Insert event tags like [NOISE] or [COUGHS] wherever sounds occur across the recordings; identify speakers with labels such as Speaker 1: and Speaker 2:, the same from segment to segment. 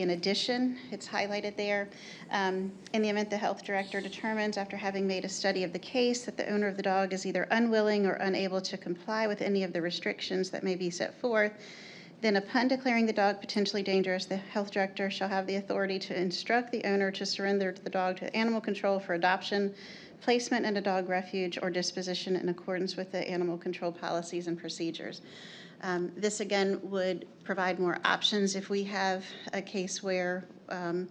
Speaker 1: In addition, it's highlighted there, um, in the event the health director determines, after having made a study of the case, that the owner of the dog is either unwilling or unable to comply with any of the restrictions that may be set forth, then upon declaring the dog potentially dangerous, the health director shall have the authority to instruct the owner to surrender the dog to animal control for adoption, placement in a dog refuge, or disposition in accordance with the animal control policies and procedures. Um, This, again, would provide more options if we have a case where um,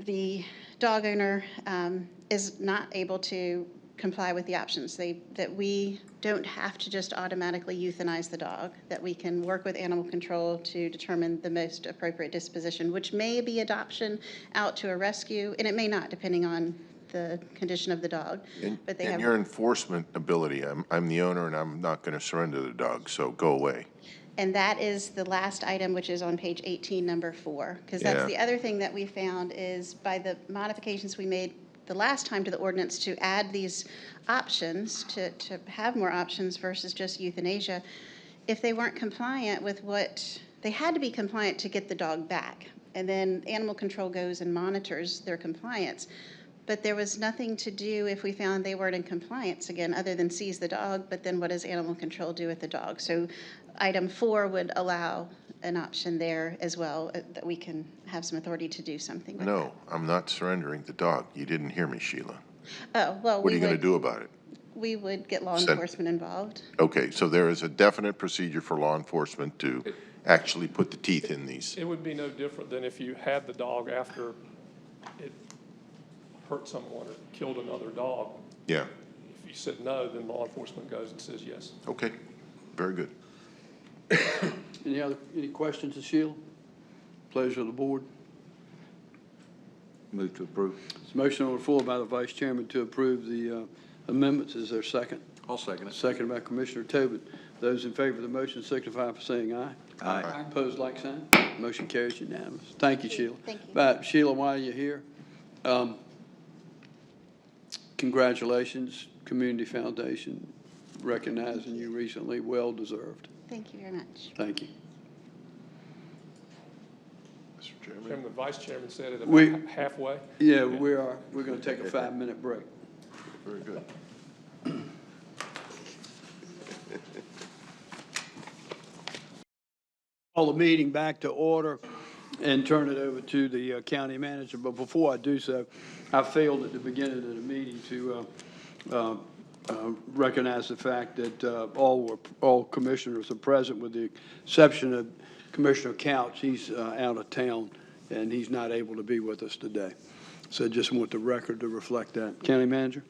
Speaker 1: the dog owner um, is not able to comply with the options. They, that we don't have to just automatically euthanize the dog, that we can work with animal control to determine the most appropriate disposition, which may be adoption out to a rescue, and it may not, depending on the condition of the dog.
Speaker 2: And
Speaker 1: But they
Speaker 2: and
Speaker 1: have-
Speaker 2: your enforcement ability, I'm, I'm the owner and I'm not going to surrender the dog, so go away.
Speaker 1: And that is the last item, which is on page 18, number four. Because that's
Speaker 2: Yeah.
Speaker 1: the other thing that we found is by the modifications we made the last time to the ordinance to add these options, to, to have more options versus just euthanasia, if they weren't compliant with what, they had to be compliant to get the dog back. And then animal control goes and monitors their compliance. But there was nothing to do if we found they weren't in compliance again, other than seize the dog, but then what does animal control do with the dog? So item four would allow an option there as well, uh, that we can have some authority to do something with
Speaker 2: No, I'm not surrendering the dog. You didn't hear me, Sheila.
Speaker 1: that. Oh, well,
Speaker 2: What
Speaker 1: we
Speaker 2: are you going to
Speaker 1: would,
Speaker 2: do about it?
Speaker 1: we would get law
Speaker 2: Send-
Speaker 1: enforcement involved.
Speaker 2: Okay, so there is a definite procedure for law enforcement to actually put the teeth in these.
Speaker 3: It would be no different than if you had the dog after it hurt someone or killed another dog.
Speaker 2: Yeah,
Speaker 3: If you said no, then law enforcement goes and says yes.
Speaker 2: okay, very good.
Speaker 4: Any other, any questions to Sheila? Pleasure of the board.
Speaker 5: Move to approve.
Speaker 4: It's a motion on the floor by the vice chairman to approve the uh, amendments. Is there a second?
Speaker 5: I'll second it.
Speaker 4: Second by Commissioner Tobin. Those in favor of the motion signify by saying aye.
Speaker 5: Aye.
Speaker 4: Opposed, like sign. Motion carries unanimous. Thank you, Sheila.
Speaker 1: Thank you.
Speaker 4: But Sheila, while you're here, um, congratulations, Community Foundation recognizing you recently. Well deserved.
Speaker 1: Thank you very much.
Speaker 4: Thank you.
Speaker 2: Mr. Chairman,
Speaker 3: Chairman, the vice chairman said it
Speaker 4: We-
Speaker 3: about halfway.
Speaker 4: Yeah, we are, we're going to take a five-minute break.
Speaker 2: very good.
Speaker 4: call the meeting back to order and turn it over to the uh, county manager. But before I do so, I failed at the beginning of the meeting to uh, uh, uh, recognize the fact that uh, all were, all commissioners are present with the exception of Commissioner Couch. He's uh, out of town and he's not able to be with us today. So just want the record to reflect that. County manager?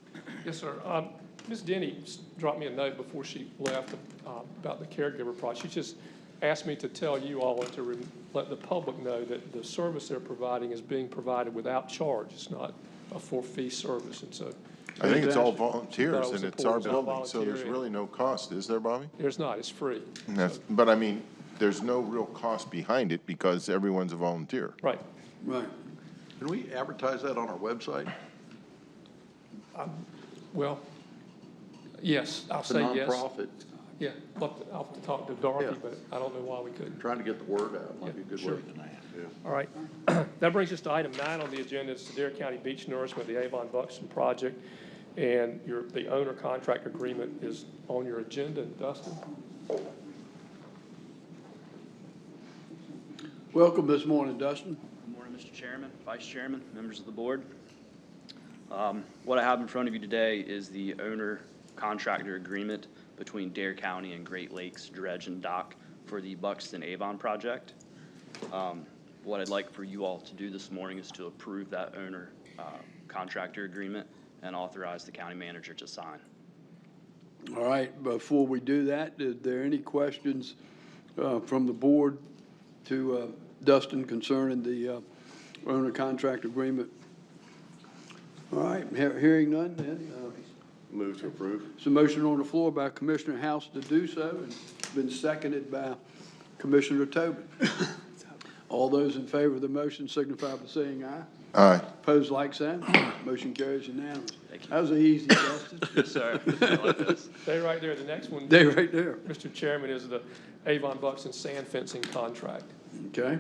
Speaker 3: Yes, sir. Um, Ms. Denny s- dropped me a note before she left uh, about the caregiver project. She just asked me to tell you all and to rem- let the public know that the service they're providing is being provided without charge. It's not a for-fee service, and so
Speaker 2: I think it's all volunteers
Speaker 3: That was
Speaker 2: and
Speaker 3: a
Speaker 2: it's our
Speaker 3: pool, it's all
Speaker 2: building, so there's
Speaker 3: voluntary.
Speaker 2: really no cost, is there, Bobby?
Speaker 3: there's not, it's free.
Speaker 2: That's- But I mean, there's no real cost behind it because everyone's a volunteer.
Speaker 3: Right.
Speaker 4: Right.
Speaker 6: Can we advertise that on our website?
Speaker 3: Well, yes, I'll say yes.
Speaker 6: It's a nonprofit,
Speaker 3: Yeah, I'll I'll have to talk to Dorothy,
Speaker 6: Yeah.
Speaker 3: but I don't know why we couldn't.
Speaker 6: trying to get the word out, might be a
Speaker 3: Yeah,
Speaker 6: good
Speaker 3: sure.
Speaker 6: way. Yeah.
Speaker 3: All right. [CLEARS THROAT] That brings us to item nine on the agenda, it's the Dare County Beach Nourishment, the Avon Buxton project. And your, the owner contract agreement is on your agenda, Dustin.
Speaker 4: Welcome this morning, Dustin.
Speaker 7: Good morning, Mr. Chairman, Vice Chairman, members of the board. Um, What I have in front of you today is the owner contractor agreement between Dare County and Great Lakes Dredge and Dock for the Buxton Avon project. Um, What I'd like for you all to do this morning is to approve that owner uh, contractor agreement and authorize the county manager to sign.
Speaker 4: All right, before we do that, is there any questions uh, from the board to uh, Dustin concerning the uh, owner contract agreement? All right, he- hearing none then. uh, Move to approve. It's a motion on the floor by Commissioner House to do so, and it's been seconded by Commissioner
Speaker 7: [COUGHS]
Speaker 4: Tobin. All those in favor of the motion signify by saying aye.
Speaker 2: Aye.
Speaker 4: Opposed, like sign. Motion carries unanimous.
Speaker 7: Thank you.
Speaker 4: That was an easy, Dustin.
Speaker 7: [COUGHS] Yes, sir.
Speaker 3: Stay right there, the next one,
Speaker 4: They right there,
Speaker 3: Mr. Chairman, is the Avon Buxton sand fencing contract.
Speaker 4: okay?